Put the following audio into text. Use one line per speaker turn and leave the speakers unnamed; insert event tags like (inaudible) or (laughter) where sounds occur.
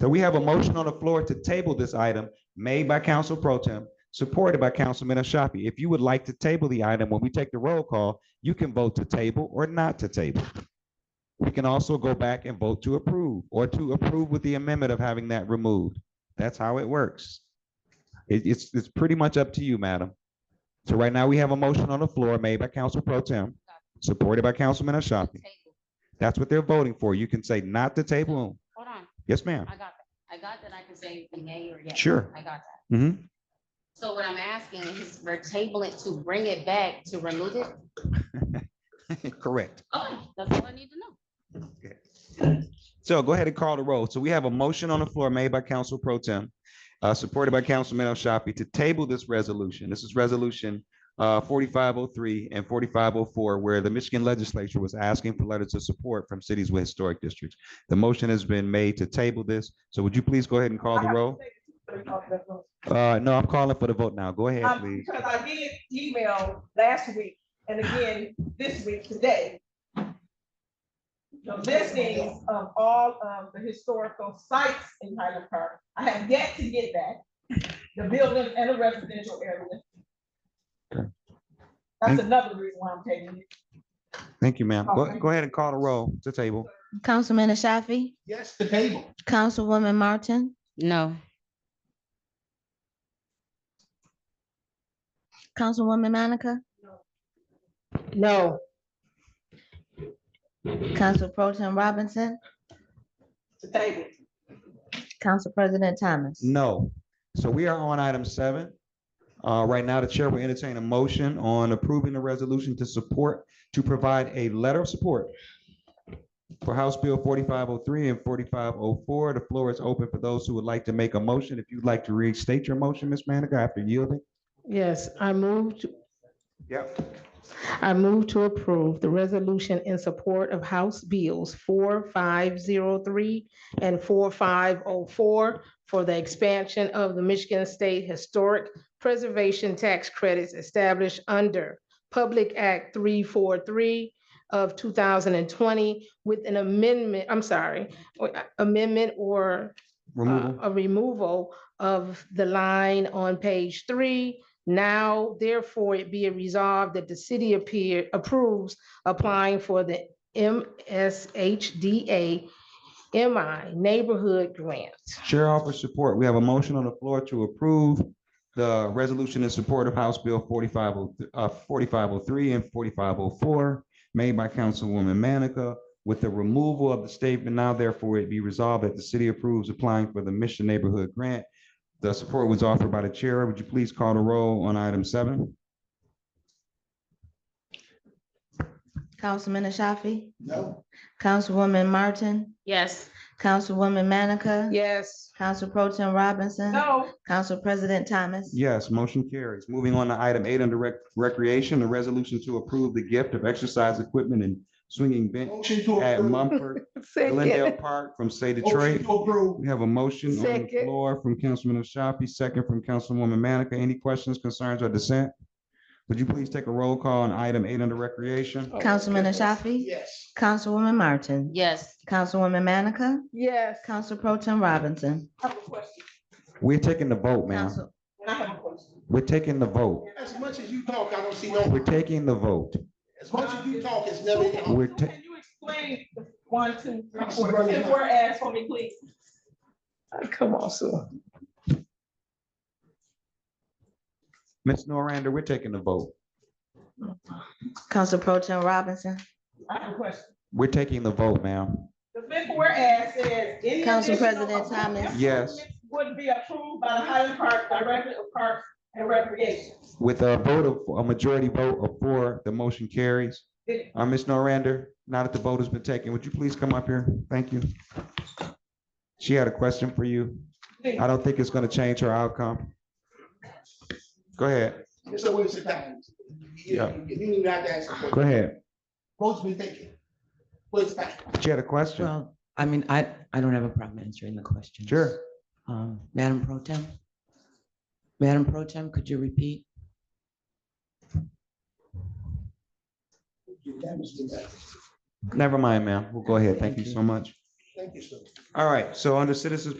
So we have a motion on the floor to table this item made by Council Pro Tem, supported by Councilman Ashafi. If you would like to table the item, when we take the roll call, you can vote to table or not to table. We can also go back and vote to approve or to approve with the amendment of having that removed. That's how it works. It- it's, it's pretty much up to you, madam. So right now, we have a motion on the floor made by Council Pro Tem, supported by Councilman Ashafi.
Table.
That's what they're voting for. You can say not to table.
Hold on,
Yes, ma'am.
I got that. I got that I can say nay or yes.
Sure.
I got that.
hmm
So what I'm asking is for tabling to bring it back to remove it?
Correct.
Okay, Oh, that's all I need to know.
So go ahead and call the roll. So we have a motion on the floor made by Council Pro Tem, uh, supported by Councilman El Shafi to table this resolution. This is resolution uh, forty-five oh three and forty-five oh four, where the Michigan Legislature was asking for letters of support from cities with historic districts. The motion has been made to table this. So would you please go ahead and call the
Um,
roll? Uh, no, I'm calling for the vote now. Go ahead,
Um,
please.
Because I did email last week and again this week today. The listings of all of the historical sites in Highland Park. I have yet to get that, the building and the residential area.
Okay.
That's another reason why I'm taking it.
Thank you, ma'am. Go, go ahead and call the roll to table.
Councilman Ashafi,
Yes, the table.
Councilwoman Martin,
No.
Councilwoman Manica,
No,
Council Pro Tem Robinson,
To table.
Council President Thomas.
No. So we are on item seven. Uh, right now, the chair will entertain a motion on approving the resolution to support, to provide a letter of support for House Bill forty-five oh three and forty-five oh four. The floor is open for those who would like to make a motion. If you'd like to restate your motion, Ms. Manica, after yielding.
yes, I moved,
Yep.
I move to approve the resolution in support of House Bills four five zero three and four five oh four for the expansion of the Michigan State Historic Preservation Tax Credits established under Public Act three four three of two thousand and twenty with an amendment, I'm sorry, uh, amendment or uh,
Removal.
a removal of the line on page three. Now therefore it be it resolved that the city appear, approves applying for the MSHDA MI Neighborhood Grant.
Chair offers support. We have a motion on the floor to approve the resolution in support of House Bill forty-five oh, uh, forty-five oh three and forty-five oh four made by Councilwoman Manica with the removal of the statement now therefore it be resolved that the city approves applying for the Mission Neighborhood Grant. The support was offered by the chair. Would you please call the roll on item seven?
Councilman Ashafi,
No.
Councilwoman Martin,
Yes.
Councilwoman Manica,
Yes,
Council Pro Tem Robinson,
No,
Council President Thomas.
Yes, motion carries. Moving on to item eight under rec- recreation, the resolution to approve the gift of exercise equipment and swinging bench
Motion to
at
approve.
Mumford Glendale (laughs)
second, Oh,
Park from Say
Motion
Detroit.
to approve.
We have a motion on the
Second.
floor from Councilman Ashafi, second from Councilwoman Manica. Any questions, concerns, or dissent? Would you please take a roll call on item eight under recreation?
Oh.
Councilman Ashafi,
Yes.
Councilwoman Martin,
Yes.
Councilwoman Manica,
yes.
Council Pro Tem Robinson.
I have a question.
We're taking the vote, ma'am.
Council,
And I have a question.
We're taking the vote.
As much as you talk, I don't see no,
We're taking the vote.
as much as you talk, it's never.
We're
So
ta-
Can you explain the one, two, three,
I'm
four,
running
and
out.
whereas for me, please?
Come on, Sue.
Ms. Norander, we're taking the vote.
Council Pro Tem Robinson,
I have a question.
We're taking the vote, ma'am.
The fifth whereas says. any
Council
additional
President Thomas.
Yes.
Would be approved by the Highland Park Director of Parks and Recreation.
With a vote of, a majority vote of four, the motion carries.
Did-
Uh, Ms. Norander, now that the vote has been taken, would you please come up here? Thank you. She had a question for you.
did-
I don't think it's gonna change her outcome. Go ahead,
It's a waste of time. You-
Yeah.
You you need not to ask. a question.
go ahead.
Most be thinking. Waste of time.
She had a question.
Well, I mean, I, I don't have a problem answering the question.
Sure.
Um, Madam Pro Tem? Madam Pro Tem, could you repeat?
You damaged the guy.
Never mind, ma'am. We'll go ahead. Thank you so much.
Thank you, sir.
All right, so under citizens